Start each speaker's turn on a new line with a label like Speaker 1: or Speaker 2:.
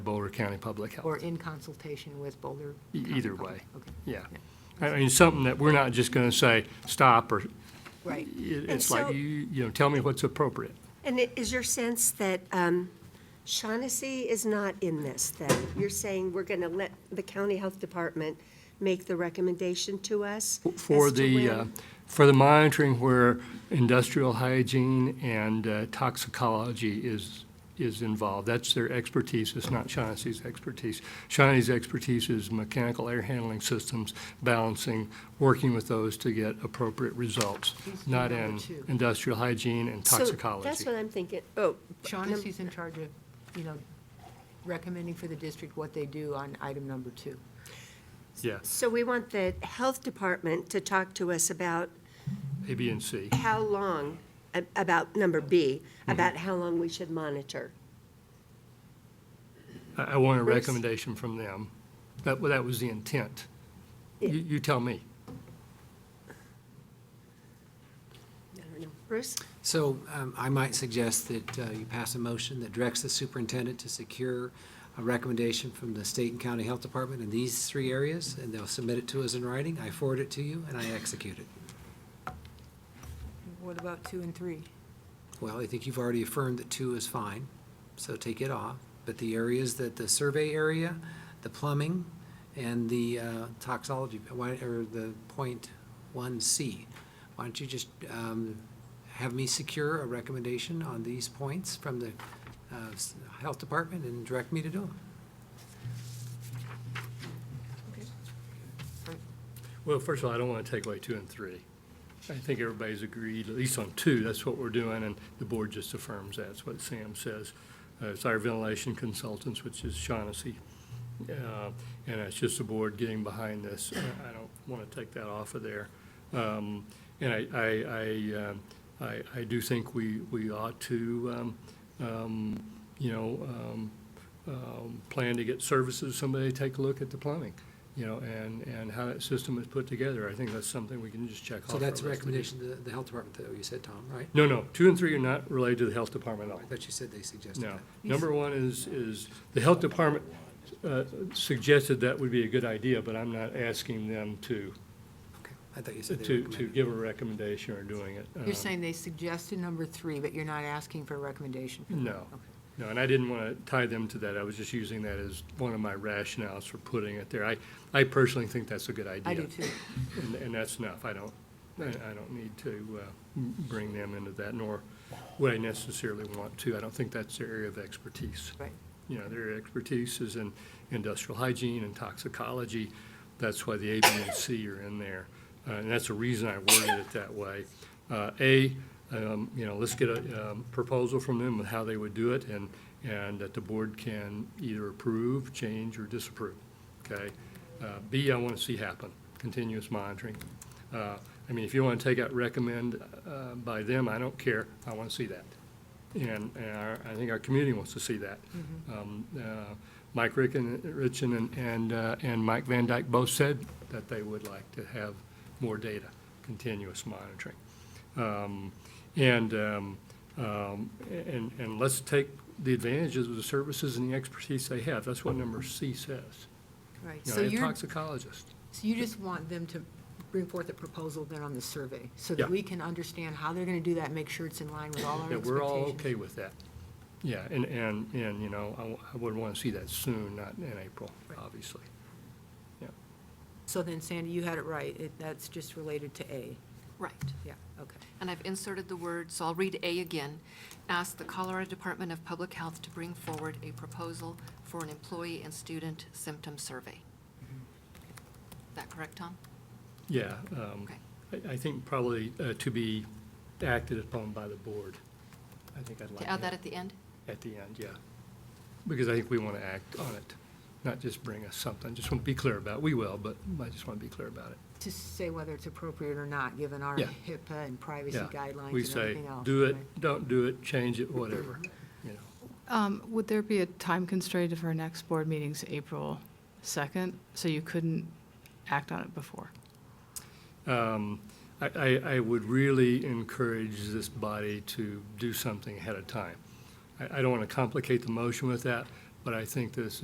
Speaker 1: Boulder County Public
Speaker 2: Or
Speaker 1: Health.
Speaker 2: in consultation with Boulder?
Speaker 1: E-
Speaker 2: County
Speaker 1: either
Speaker 2: Public-
Speaker 1: way.
Speaker 2: Okay,
Speaker 1: Yeah. I mean, something that we're not just going to say, stop, or it-
Speaker 2: right.
Speaker 1: it's
Speaker 3: so-
Speaker 1: like, you, you know, tell me what's appropriate.
Speaker 3: And it is your sense that um, Shaughnessy is not in this, then? You're saying we're going to let the county health department make the recommendation to us?
Speaker 1: For
Speaker 3: as to
Speaker 1: the,
Speaker 3: when-
Speaker 1: uh, for the monitoring where industrial hygiene and uh, toxicology is, is involved. That's their expertise, it's not Shaughnessy's expertise. Shaughnessy's expertise is mechanical air handling systems, balancing, working with those to get appropriate results,
Speaker 2: He's the
Speaker 1: not
Speaker 2: number
Speaker 1: in
Speaker 2: two.
Speaker 1: industrial hygiene and
Speaker 3: So
Speaker 1: toxicology.
Speaker 3: That's what I'm thinking. Oh,
Speaker 2: Shaughnessy's in charge of, you know, recommending for the district what they do on item number two.
Speaker 1: Yeah,
Speaker 3: so we want the health department to talk to us about
Speaker 1: A, B, and C.
Speaker 3: how long, a- about number B,
Speaker 1: Mm-hmm.
Speaker 3: about how long we should monitor.
Speaker 1: I, I want a
Speaker 3: Bruce?
Speaker 1: recommendation from them. That, well, that was the intent. You, you tell me.
Speaker 3: I don't know. Bruce?
Speaker 4: So um, I might suggest that uh, you pass a motion that directs the superintendent to secure a recommendation from the state and county health department in these three areas, and they'll submit it to us in writing. I forward it to you, and I execute it.
Speaker 2: What about two and three?
Speaker 4: Well, I think you've already affirmed that two is fine, so take it off. But the areas that, the survey area, the plumbing, and the uh, toxology, why- or the point one C, why don't you just um, have me secure a recommendation on these points from the uh, s- health department and direct me to do them?
Speaker 1: Well, first of all, I don't want to take away two and three. I think everybody's agreed, at least on two, that's what we're doing, and the board just affirms that. That's what Sam says. Uh, It's our ventilation consultants, which is Shaughnessy. Uh, And it's just the board getting behind this. Uh, I I don't want to take that off of there. Um, And I, I, I, um, I, I do think we, we ought to, um, um, you know, um, um, plan to get services, somebody take a look at the plumbing, you know, and, and how that system is put together. I think that's something we can just check off.
Speaker 4: So
Speaker 1: our
Speaker 4: that's a
Speaker 1: list.
Speaker 4: recommendation to the- the health department, that you said, Tom, right?
Speaker 1: No, no, two and three are not related to the health department at all.
Speaker 4: I thought you said they suggested
Speaker 1: No.
Speaker 4: that.
Speaker 1: Number one is, is the health department uh, suggested that would be a good idea, but I'm not asking them to,
Speaker 4: Okay. I thought you
Speaker 1: to,
Speaker 4: said they
Speaker 1: to
Speaker 4: recommended.
Speaker 1: give a recommendation or doing it. Um,
Speaker 2: You're saying they suggested number three, but you're not asking for a recommendation? for that?
Speaker 1: No,
Speaker 2: Okay.
Speaker 1: no, and I didn't want to tie them to that. I was just using that as one of my rationales for putting it there. I, I personally think that's a good idea.
Speaker 2: I do too.
Speaker 1: And, and that's enough. I don't, I, I don't need to, uh, m- bring them into that, nor would I necessarily want to. I don't think that's their area of expertise.
Speaker 2: Right.
Speaker 1: You know, their expertise is in industrial hygiene and toxicology. That's why the A, B, and C are in there. Uh, and that's the reason I worded it that way. Uh, A, um, you know, let's get a, um, proposal from them on how they would do it and, and that the board can either approve, change, or disapprove, okay? Uh, B, I want to see happen, continuous monitoring. Uh, I mean, if you want to take out recommend, uh, by them, I don't care. I want to see that. And, and our, I think our community wants to see that.
Speaker 2: Mm-hmm.
Speaker 1: Um, uh, Mike Ricken, Richen and, and, uh, and Mike Van Dyke both said that they would like to have more data, continuous monitoring. Um, And, um, um, and, and let's take the advantages of the services and the expertise they have. That's what number C says.
Speaker 2: Right,
Speaker 1: You
Speaker 2: so
Speaker 1: know, and
Speaker 2: you're,
Speaker 1: toxicologist.
Speaker 2: so you just want them to bring forth a proposal then on the survey, so
Speaker 1: Yeah.
Speaker 2: that we can understand how they're going to do that, and make sure it's in line with all our
Speaker 1: Yeah,
Speaker 2: expectations?
Speaker 1: we're all okay with that. Yeah, and, and, and, you know, I w- I would want to see that soon, not in April, obviously.
Speaker 2: So then Sandy, you had it right, It- that's just related to A,
Speaker 5: Right,
Speaker 2: yeah, okay.
Speaker 5: and I've inserted the word, so I'll read A again. Ask the Colorado Department of Public Health to bring forward a proposal for an employee and student symptom survey. Is that correct, Tom?
Speaker 1: Yeah, um, I, I think probably uh, to be acted upon by the board. I think I'd like
Speaker 5: To add that
Speaker 1: that
Speaker 5: at the end?
Speaker 1: at the end, yeah. Because I think we want to act on it, not just bring us something. Just want to be clear about, it. we will, but I just want to be clear about it.
Speaker 2: To say whether it's appropriate or not, given our
Speaker 1: Yeah.
Speaker 2: HIPAA and privacy
Speaker 1: Yeah,
Speaker 2: guidelines
Speaker 1: We
Speaker 2: and
Speaker 1: say,
Speaker 2: everything else.
Speaker 1: do it,
Speaker 2: right? Mm-hmm.
Speaker 1: don't do it, change it, whatever, you know.
Speaker 6: Um, Would there be a time constraint if our next board meeting's April 2nd, so you couldn't act on it before?
Speaker 1: Um, I, I, I would really encourage this body to do something ahead of time. I, I don't want to complicate the motion with that, But I think this